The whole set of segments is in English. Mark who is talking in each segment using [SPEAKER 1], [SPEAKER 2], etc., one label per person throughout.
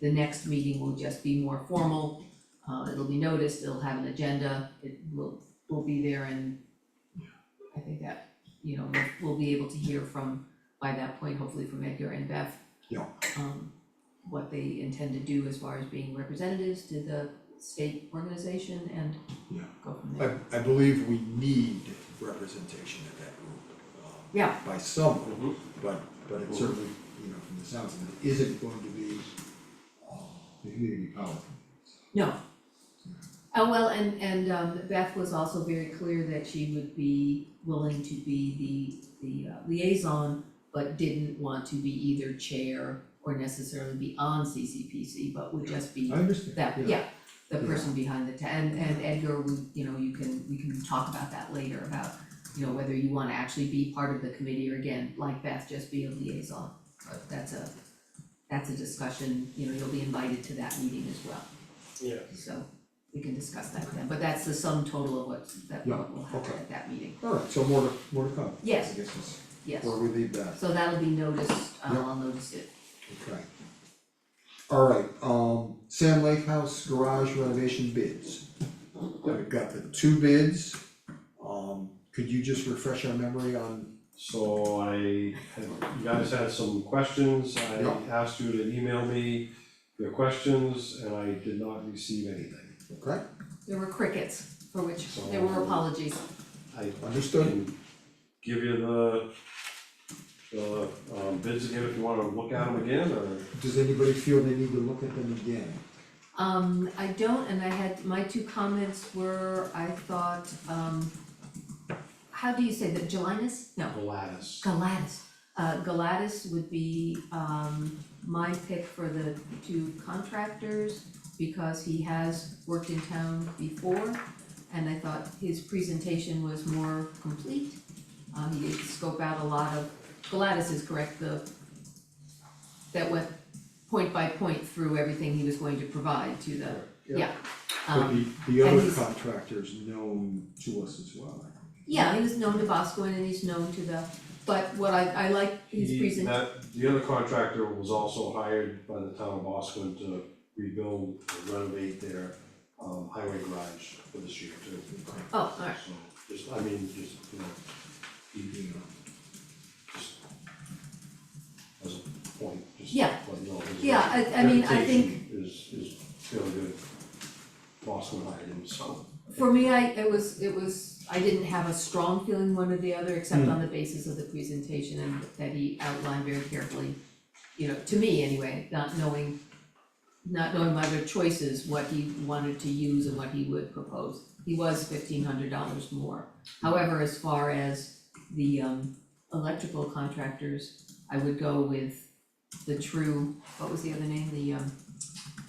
[SPEAKER 1] The next meeting will just be more formal, uh, it'll be noticed, it'll have an agenda, it will, will be there and I think that, you know, we'll- we'll be able to hear from, by that point, hopefully from Edgar and Beth.
[SPEAKER 2] Yeah.
[SPEAKER 1] Um, what they intend to do as far as being representatives to the state organization and
[SPEAKER 2] Yeah.
[SPEAKER 1] go from there.
[SPEAKER 2] I, I believe we need representation at that group, um,
[SPEAKER 1] Yeah.
[SPEAKER 2] by someone,
[SPEAKER 3] Mhm.
[SPEAKER 2] but, but it certainly, you know, from the sounds of it, isn't going to be, um, the community college.
[SPEAKER 1] No. Oh, well, and and um Beth was also very clear that she would be willing to be the the uh, liaison, but didn't want to be either chair or necessarily be on CCPC, but would just be
[SPEAKER 2] I understand,
[SPEAKER 1] that,
[SPEAKER 2] yeah.
[SPEAKER 1] yeah, the person behind the, ta- and and Edgar, we, you know, you can, we can talk about that later about, you know, whether you wanna actually be part of the committee or again, like Beth, just be a liaison. But that's a, that's a discussion, you know, you'll be invited to that meeting as well.
[SPEAKER 3] Yeah.
[SPEAKER 1] So we can discuss that then, but that's the sum total of what that
[SPEAKER 2] Yeah,
[SPEAKER 1] what will happen
[SPEAKER 2] okay.
[SPEAKER 1] at that meeting,
[SPEAKER 2] Alright, so more to, more to come.
[SPEAKER 1] Yes.
[SPEAKER 2] I guess is
[SPEAKER 1] yes.
[SPEAKER 2] where we leave that,
[SPEAKER 1] So that'll be noticed, uh,
[SPEAKER 2] Yeah.
[SPEAKER 1] I'll notice it,
[SPEAKER 2] okay. Alright, um, Sand Lake House garage renovation bids. We've got the two bids, um, could you just refresh our memory on,
[SPEAKER 3] So I, had- you guys had some questions, I
[SPEAKER 2] Yeah.
[SPEAKER 3] asked you to email me your questions, and I did not receive anything.
[SPEAKER 2] okay,
[SPEAKER 1] there were crickets, for which there were
[SPEAKER 3] So-
[SPEAKER 1] apologies,
[SPEAKER 3] I
[SPEAKER 2] understood?
[SPEAKER 3] can give you the, the um, bids again if you wanna look at them again, or,
[SPEAKER 2] Does anybody feel they need to look at them again?
[SPEAKER 1] Um, I don't, and I had, my two comments were, I thought, um, how do you say that, Gelinas? No,
[SPEAKER 3] the lattice.
[SPEAKER 1] Galatas. Uh, Galatas would be, um, my pick for the two contractors because he has worked in town before. And I thought his presentation was more complete. Uh, he did scope out a lot of, Galatas is correct, the, that went point by point through everything he was going to provide to the, yeah.
[SPEAKER 2] But
[SPEAKER 1] Um,
[SPEAKER 2] the, the
[SPEAKER 1] and
[SPEAKER 2] other
[SPEAKER 1] he's-
[SPEAKER 2] contractors known to us as well, I think.
[SPEAKER 1] yeah, he was known to Bosco and he's known to the, but what I, I like his
[SPEAKER 3] He,
[SPEAKER 1] presentation.
[SPEAKER 3] that, the other contractor was also hired by the town of Boscombe to rebuild, renovate their um highway garage for this year too.
[SPEAKER 1] Oh, alright.
[SPEAKER 3] So, just, I mean, just, you know, you know, just as a point, just
[SPEAKER 1] Yeah.
[SPEAKER 3] let you know his
[SPEAKER 1] Yeah, I- I mean, I
[SPEAKER 3] reputation Is is fairly good. Boscombe hired him, so.
[SPEAKER 1] For me, I, it was, it was, I didn't have a strong feeling one or the other, except on the basis of the presentation and that he outlined very carefully. You know, to me anyway, not knowing, not knowing my other choices, what he wanted to use and what he would propose. He was fifteen hundred dollars more. However, as far as the um electrical contractors, I would go with the true, what was the other name, the um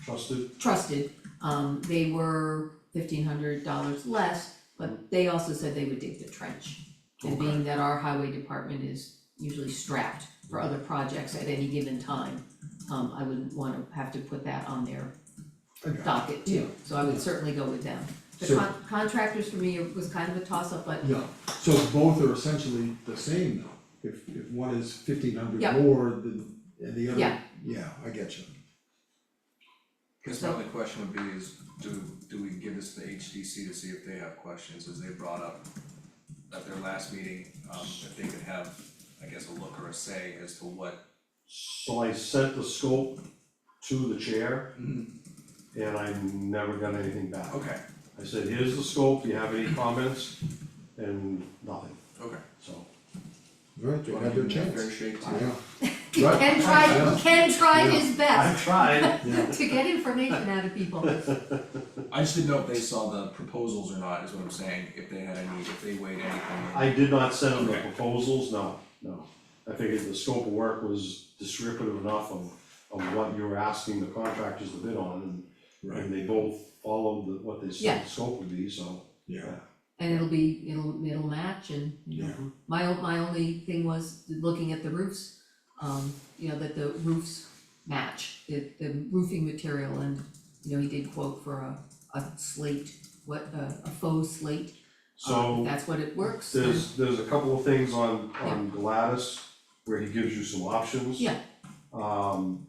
[SPEAKER 3] Trusted,
[SPEAKER 1] trusted, um, they were fifteen hundred dollars less, but they also said they would dig the trench. And being that our highway department is usually strapped for other projects at any given time, um, I wouldn't wanna have to put that on their
[SPEAKER 2] Okay.
[SPEAKER 1] docket too, so I would certainly go with them. The
[SPEAKER 2] So-
[SPEAKER 1] con- contractors for me was kind of a toss-up, but
[SPEAKER 2] Yeah, so both are essentially the same though, if, if one is fifteen hundred
[SPEAKER 1] Yeah.
[SPEAKER 2] more than, and the other,
[SPEAKER 1] Yeah.
[SPEAKER 2] yeah, I get you.
[SPEAKER 4] Guess my only question would be is, do, do we give this to HDC to see if they have questions, as they brought up at their last meeting, um, if they could have, I guess, a look or a say as to what,
[SPEAKER 3] so I sent the scope to the chair. And I never got anything back.
[SPEAKER 4] okay,
[SPEAKER 3] I said, here's the scope, do you have any comments? And nothing,
[SPEAKER 4] okay.
[SPEAKER 3] so.
[SPEAKER 2] Right, they had their
[SPEAKER 4] Fair
[SPEAKER 2] chance,
[SPEAKER 4] shake too.
[SPEAKER 2] yeah, Right.
[SPEAKER 1] Ken tried,
[SPEAKER 2] Yeah.
[SPEAKER 1] Ken tried
[SPEAKER 2] Yeah.
[SPEAKER 1] his best
[SPEAKER 3] tried.
[SPEAKER 2] yeah,
[SPEAKER 1] to get information out of people.
[SPEAKER 4] I just didn't know if they saw the proposals or not, is what I'm saying, if they had any, if they weighed anything.
[SPEAKER 3] I did not send them the
[SPEAKER 4] Okay.
[SPEAKER 3] proposals, no, no. I figured the scope of work was descriptive enough of, of what you were asking the contractors to bid on, and,
[SPEAKER 2] right,
[SPEAKER 3] and they both followed the- what they said
[SPEAKER 1] Yeah.
[SPEAKER 3] the scope would be, so.
[SPEAKER 2] yeah,
[SPEAKER 1] And it'll be, it'll, it'll match and, you know,
[SPEAKER 2] yeah,
[SPEAKER 1] Mm-hmm. My o- my only thing was looking at the roofs, um, you know, that the roofs match, the the roofing material and, you know, he did quote for a a slate, what, a a faux slate. um, if
[SPEAKER 3] So
[SPEAKER 1] That's what it works. then-
[SPEAKER 3] there's, there's a couple of things on, on Gladys where he gives you some options.
[SPEAKER 1] Yeah.
[SPEAKER 3] Um,